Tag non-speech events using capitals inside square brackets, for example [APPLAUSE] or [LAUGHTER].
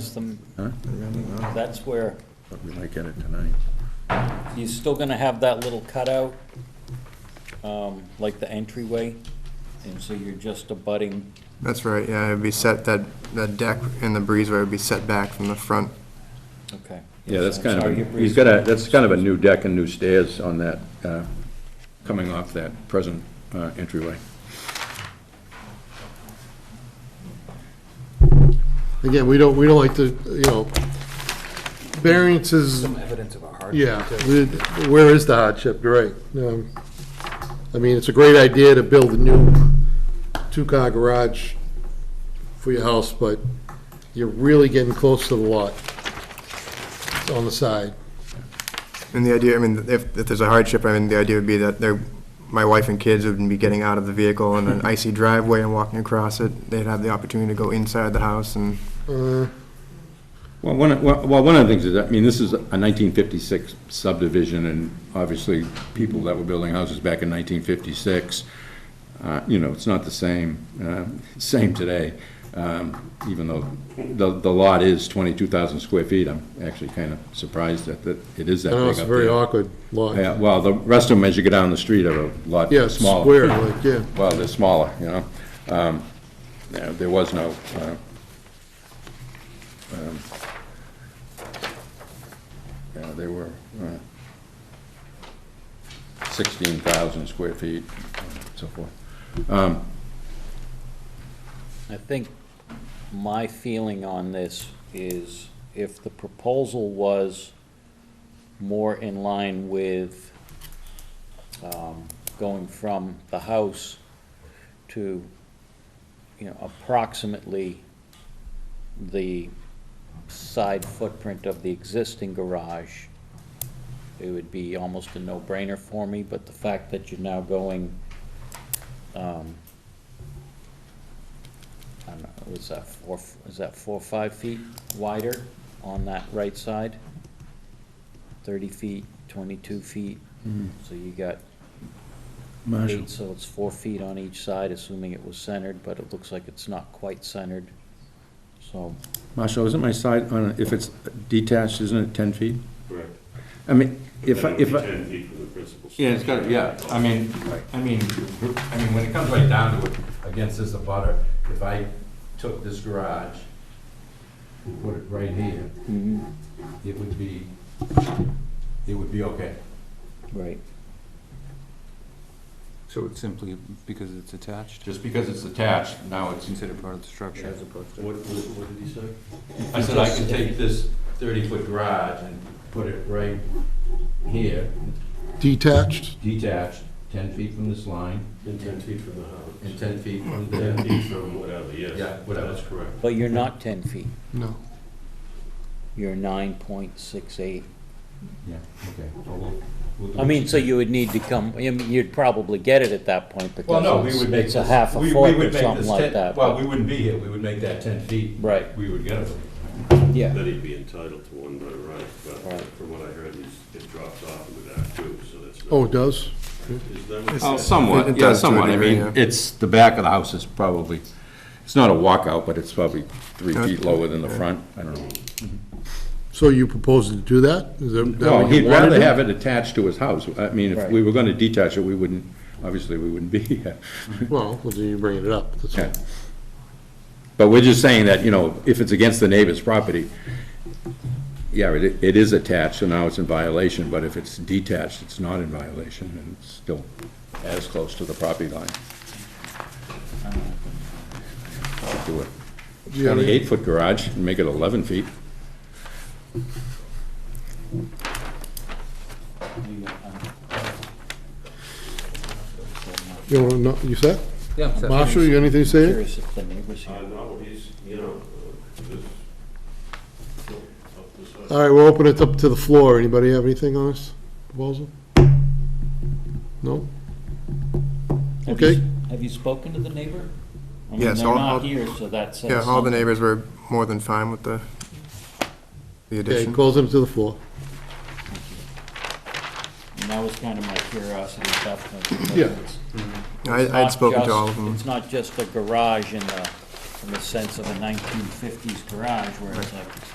system, Huh? that's where, But we might get it tonight. you're still gonna have that little cutout, um, like the entryway, and so you're just abutting, That's right, yeah, it'd be set, that, that deck and the breezeway would be set back from the front. okay. Yeah, that's I'm kind sorry, your of, a- breeze- he's got a, that's kind of a new deck and new stairs on that, uh, coming off that present uh, entryway. Again, we don't, we don't like to, you know, variances, evidence of a hardship. yeah, we- where is the hardship, you're right. Um, I mean, it's a great idea to build a new two-car garage for your house, but you're really getting close to the lot on the side. And the idea, I mean, if, if there's a hardship, I mean, the idea would be that they're, my wife and kids would be getting out of the vehicle in [LAUGHS] an icy driveway and walking across it. They'd have the opportunity to go inside the house and, Uh, Well, one, of- well, well, one of the things is, I mean, this is a 1956 subdivision, and obviously, people that were building houses back in 1956, uh, you know, it's not the same, uh, same today, um, even though the, the lot is 22,000 square feet. I'm actually kind of surprised that, that it is that I big up know, there. it's a very awkward lot. Yeah, well, the rest of them, as you go down the street, are a lot Yeah, it's smaller. square, like, yeah. Well, they're smaller, you know. Um, yeah, There was no, uh, um, yeah, they were uh, 16,000 square feet, so forth. Um, I think my feeling on this is if the proposal was more in line with, um, going from the house to, you know, approximately the side footprint of the existing garage, it would be almost a no-brainer for me, but the fact that you're now going, um, I don't know, was that four, is that four, or five feet wider on that right side? Thirty feet, twenty-two feet, so you got Marshall, eight, so it's four feet on each side, assuming it was centered, but it looks like it's not quite centered. So, Marshall, isn't my side, on if it's detached, isn't it 10 feet? I mean, if, I- if. I- Ten feet from the principal. Yeah, it's got, yeah, I mean, I mean, I mean, when it comes right down to it, against this abutter, if I took this garage, put it right here, it would be, it would be okay. right, So it's simply because it's attached, Just because it's attached, now it's. considered part of the structure as opposed to. What, what did he say? I said I could take this thirty-foot garage and put it right here, Detached, detached, ten feet from this line, And ten feet from the house. and ten feet from Ten there. feet from whatever, yes. Yeah, whatever. That's correct. but you're not ten feet, no. you're nine point six eight. Yeah, okay, well, we'll- we'll do I mean, so you would need to come, I mean, you'd probably get it at that point Well, no, we because would it's, make it's this. a half we- a we foot would or make something this like 10 that. Well, but- we wouldn't be here, we would make that ten feet. Right. We would get it. Yeah, Then he'd be entitled to one by right, but Right. from what I heard, he's- it drops off in the back too, so that's. not- Oh, it does? Is that what- Oh, somewhat, It yeah, does to a somewhat, I degree, mean, yeah. it's, the back of the house is probably, it's not a walkout, but it's probably three Yeah. feet lower than the front, I don't know. So you proposing to do that? Is that- that Well, what you he'd wanna rather do? have it attached to his house, I mean, if Right. we were gonna detach it, we wouldn't, obviously, we wouldn't be here. [LAUGHS] Well, well, then you bring it up, that's all. Yeah. But we're just saying that, you know, if it's against the neighbor's property, yeah, it, it is attached, so now it's in violation, but if it's detached, it's not in violation, and it's still as close to the property line. Do a Do you have any- twenty-eight foot garage and make it eleven feet. You want to know, you set? Yeah. Marshall, you got anything to say? curious if the neighbors Uh, here. no, he's, you know, uh, this, up this side. All right, we'll open it up to the floor. Anybody have anything on this proposal? No? Have you- Okay. Have you spoken to the neighbor? I mean, Yes, They're all- not all- here, so that says yeah, all the something. neighbors were more than fine with the, the Okay, addition. close it to the floor. And that was kind of my curiosity at that point. because Yeah. it's- I, it's not I'd spoken just- to all of them. It's not just a garage in the, in the sense of a nineteen fifties garage where it's like